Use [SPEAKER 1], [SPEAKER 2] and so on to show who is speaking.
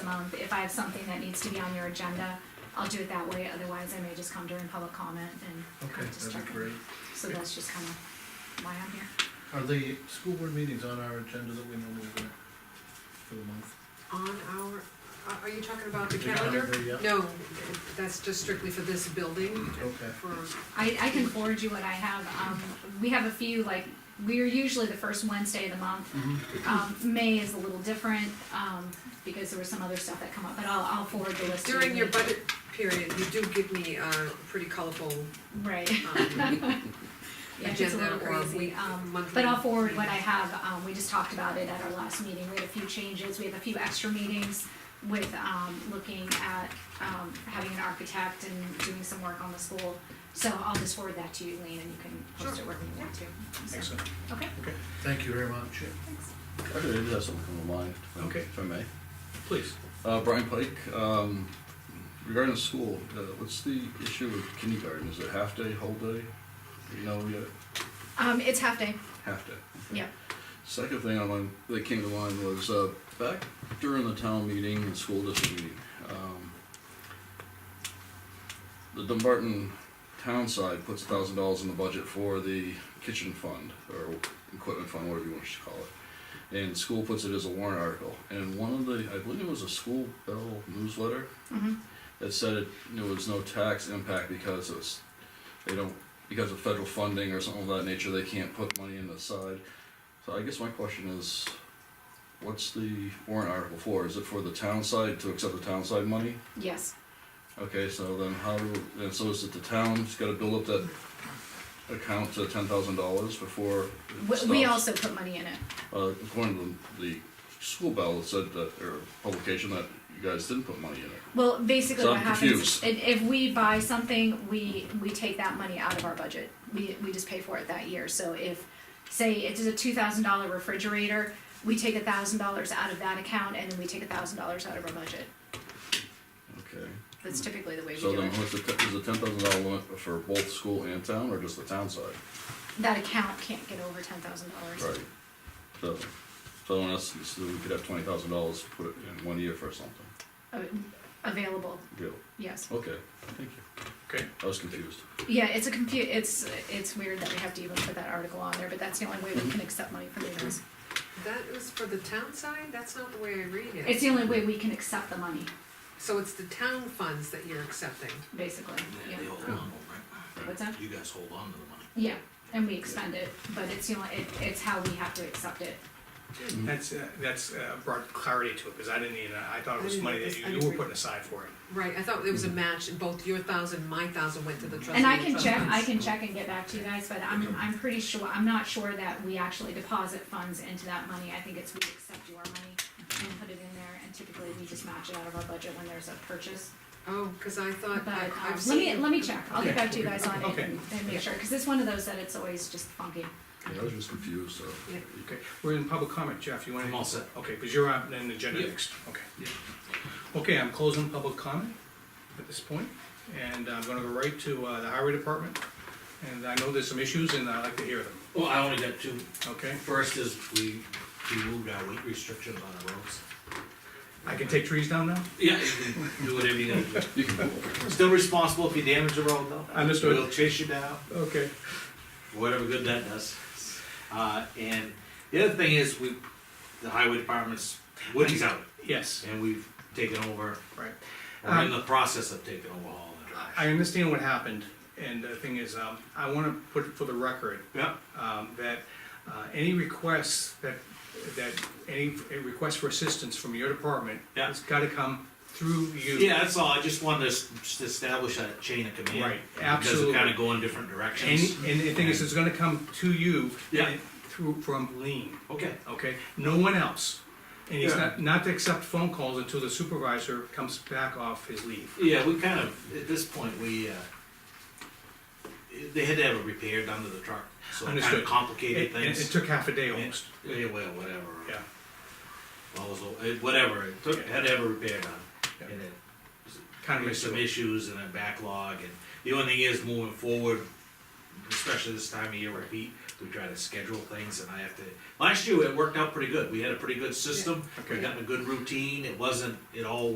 [SPEAKER 1] month, if I have something that needs to be on your agenda, I'll do it that way, otherwise I may just come during public comment and
[SPEAKER 2] Okay,
[SPEAKER 1] kind of just
[SPEAKER 2] that'd
[SPEAKER 1] check.
[SPEAKER 2] be
[SPEAKER 1] in.
[SPEAKER 2] great.
[SPEAKER 1] So that's just kind of why I'm here.
[SPEAKER 2] Are the school board meetings on our agenda that we normally do for the month?
[SPEAKER 3] On our, are- are you talking about the
[SPEAKER 2] The
[SPEAKER 3] calendar?
[SPEAKER 2] calendar, yeah.
[SPEAKER 3] No, that's just strictly for this building,
[SPEAKER 2] Okay,
[SPEAKER 3] for,
[SPEAKER 1] I, I can forward you what I have. Um, we have a few, like, we're usually the first Wednesday of the month.
[SPEAKER 2] Mm-hmm.
[SPEAKER 1] Um, May is a little different, um, because there was some other stuff that come up, but I'll, I'll forward the list. to you.
[SPEAKER 3] during your budget period, you do give me a pretty colorful
[SPEAKER 1] Right.
[SPEAKER 3] um,
[SPEAKER 1] Yeah, it's a
[SPEAKER 3] agenda
[SPEAKER 1] little
[SPEAKER 3] or
[SPEAKER 1] crazy.
[SPEAKER 3] week,
[SPEAKER 1] Um,
[SPEAKER 3] monthly.
[SPEAKER 1] But I'll forward what I have, um, we just talked about it at our last meeting, we had a few changes, we have a few extra meetings with, um, looking at, um, having an architect and doing some work on the school. So I'll just forward that to you, Lean, and you can post it
[SPEAKER 3] Sure.
[SPEAKER 1] wherever you want to. So,
[SPEAKER 2] excellent.
[SPEAKER 1] Okay,
[SPEAKER 2] Okay, thank you very much.
[SPEAKER 1] thanks.
[SPEAKER 4] I did have something come to mind. if I-
[SPEAKER 2] Okay.
[SPEAKER 4] If I may.
[SPEAKER 2] Please.
[SPEAKER 4] Uh, Brian Pike, um, regarding the school, uh, what's the issue with kindergarten? Is it half day, whole day? Do You know, yet?
[SPEAKER 1] Um, it's half day,
[SPEAKER 4] half day. okay.
[SPEAKER 1] yeah.
[SPEAKER 4] Second thing I want, that came to mind was, uh, back during the town meeting, the school district meeting, um, the Dumbarton town side puts a thousand dollars in the budget for the kitchen fund, or equipment fund, whatever you want to call it. And school puts it as a warrant article, and one of the, I believe it was a school bell newsletter,
[SPEAKER 1] Mm-hmm.
[SPEAKER 4] that said it, there was no tax impact because it was, they don't, because of federal funding or something of that nature, they can't put money in the side. So I guess my question is, what's the warrant article for? Is it for the town side, to accept the town side money?
[SPEAKER 1] Yes,
[SPEAKER 4] Okay, so then how do, and so is it the town's gotta build up that account to ten thousand dollars before it
[SPEAKER 1] we, we
[SPEAKER 4] stops?
[SPEAKER 1] also put money in it,
[SPEAKER 4] Uh, according to the, the school bell, it said that, or publication that you guys didn't put money in it.
[SPEAKER 1] well, basically
[SPEAKER 4] So
[SPEAKER 1] what
[SPEAKER 4] I'm
[SPEAKER 1] happens,
[SPEAKER 4] confused.
[SPEAKER 1] if, if we buy something, we, we take that money out of our budget. We, we just pay for it that year, so if, say it is a two thousand dollar refrigerator, we take a thousand dollars out of that account and then we take a thousand dollars out of our budget.
[SPEAKER 4] Okay.
[SPEAKER 1] That's typically the way we
[SPEAKER 4] So
[SPEAKER 1] do
[SPEAKER 4] then,
[SPEAKER 1] it.
[SPEAKER 4] what's the, te- is the ten thousand dollar limit for both school and town, or just the town side?
[SPEAKER 1] That account can't get over ten thousand dollars.
[SPEAKER 4] So, so in essence, so we could have twenty thousand dollars put it in one year for something,
[SPEAKER 1] Available,
[SPEAKER 4] deal,
[SPEAKER 1] yes.
[SPEAKER 4] okay, thank you.
[SPEAKER 2] Okay.
[SPEAKER 4] I was confused.
[SPEAKER 1] Yeah, it's a compu, it's, it's weird that we have to even put that article on there, but that's the only way we can accept money from meetings.
[SPEAKER 3] That is for the town side, that's not the way I read it.
[SPEAKER 1] It's the only way we can accept the money,
[SPEAKER 3] So it's the town funds that you're accepting.
[SPEAKER 1] basically, yeah.
[SPEAKER 5] Yeah, they hold on, right?
[SPEAKER 1] What's that?
[SPEAKER 5] You guys hold on to the money.
[SPEAKER 1] Yeah, and we expend it, but it's the only, it, it's how we have to accept it.
[SPEAKER 6] That's, uh, that's uh, brought clarity to it, because I didn't even, I thought it
[SPEAKER 3] I
[SPEAKER 6] was
[SPEAKER 3] didn't
[SPEAKER 6] money
[SPEAKER 3] know
[SPEAKER 6] that
[SPEAKER 3] this. I
[SPEAKER 6] you-
[SPEAKER 3] didn't
[SPEAKER 6] you were
[SPEAKER 3] read
[SPEAKER 6] putting
[SPEAKER 3] it.
[SPEAKER 6] aside for it.
[SPEAKER 3] Right, I thought it was a match, both your thousand, my thousand went to the trust.
[SPEAKER 1] And I
[SPEAKER 3] the
[SPEAKER 1] can
[SPEAKER 3] trust
[SPEAKER 1] check,
[SPEAKER 3] funds.
[SPEAKER 1] I can check and get back to you guys, but I'm, I'm pretty sure, I'm not sure that we actually deposit funds into that money. I think it's we accept your money and put it in there, and typically we just match it out of our budget when there's a purchase.
[SPEAKER 3] Oh, cause I thought,
[SPEAKER 1] But,
[SPEAKER 3] I-
[SPEAKER 1] um,
[SPEAKER 3] I've
[SPEAKER 1] let me,
[SPEAKER 3] seen-
[SPEAKER 1] let me check, I'll get
[SPEAKER 6] Okay,
[SPEAKER 1] back to you guys on it
[SPEAKER 6] okay.
[SPEAKER 1] and and make sure, cause it's one of those that it's always just funky.
[SPEAKER 4] Yeah, I was just confused, so.
[SPEAKER 3] Yeah.
[SPEAKER 6] Okay, we're in public comment, Jeff, you want to?
[SPEAKER 5] I'm all set.
[SPEAKER 6] Okay, because you're on an agenda
[SPEAKER 5] Yeah.
[SPEAKER 6] next, okay. Okay, I'm closing public comment at this point, and I'm gonna go right to uh, the highway department. And I know there's some issues, and I'd like to hear them,
[SPEAKER 5] Well, I only got two.
[SPEAKER 6] okay?
[SPEAKER 5] First is we removed our weight restrictions on the roads.
[SPEAKER 6] I can take trees down now?
[SPEAKER 5] Yeah, you can do whatever you gotta
[SPEAKER 4] You can move over.
[SPEAKER 5] do. Still responsible if you damage the road though.
[SPEAKER 6] Understood.
[SPEAKER 5] We'll chase you down,
[SPEAKER 6] Okay.
[SPEAKER 5] whatever good that does. Uh, and the other thing is we, the highway department's, Woody's out,
[SPEAKER 6] Yes,
[SPEAKER 5] and we've taken over,
[SPEAKER 6] right.
[SPEAKER 5] we're in the process of taking over all the
[SPEAKER 6] Um, I
[SPEAKER 5] drive.
[SPEAKER 6] understand what happened, and the thing is, um, I wanna put it for the record,
[SPEAKER 5] Yeah,
[SPEAKER 6] um, that uh, any requests that, that, any request for assistance from your department
[SPEAKER 5] Yeah.
[SPEAKER 6] has gotta come through you.
[SPEAKER 5] yeah, that's all, I just wanted to s- just establish that chain of command.
[SPEAKER 6] Right,
[SPEAKER 5] Because we're
[SPEAKER 6] absolutely.
[SPEAKER 5] kinda going different
[SPEAKER 6] And,
[SPEAKER 5] directions.
[SPEAKER 6] and the thing is, it's gonna come to you.
[SPEAKER 5] Yeah.
[SPEAKER 6] and Through, from Lean,
[SPEAKER 5] Okay.
[SPEAKER 6] okay? No one else. And he's
[SPEAKER 5] Yeah.
[SPEAKER 6] not, not to accept phone calls until the supervisor comes back off his leave.
[SPEAKER 5] Yeah, we kind of, at this point, we, uh, they had to have it repaired under the truck, so it kind
[SPEAKER 6] Understood.
[SPEAKER 5] of complicated
[SPEAKER 6] It, it- it
[SPEAKER 5] things.
[SPEAKER 6] took half a day almost,
[SPEAKER 5] Yeah, well, whatever.
[SPEAKER 6] yeah.
[SPEAKER 5] Well, it was a- it- Whatever, it took, had to have it repaired
[SPEAKER 6] Yeah.
[SPEAKER 5] on, and then
[SPEAKER 6] Kind of
[SPEAKER 5] there's some
[SPEAKER 6] miserable.
[SPEAKER 5] issues and a backlog, and the only thing is, moving forward, especially this time of year where heat, we try to schedule things and I have to, last year it worked out pretty good, we had a pretty good system. We
[SPEAKER 6] Okay.
[SPEAKER 5] got in a good routine, it wasn't, it all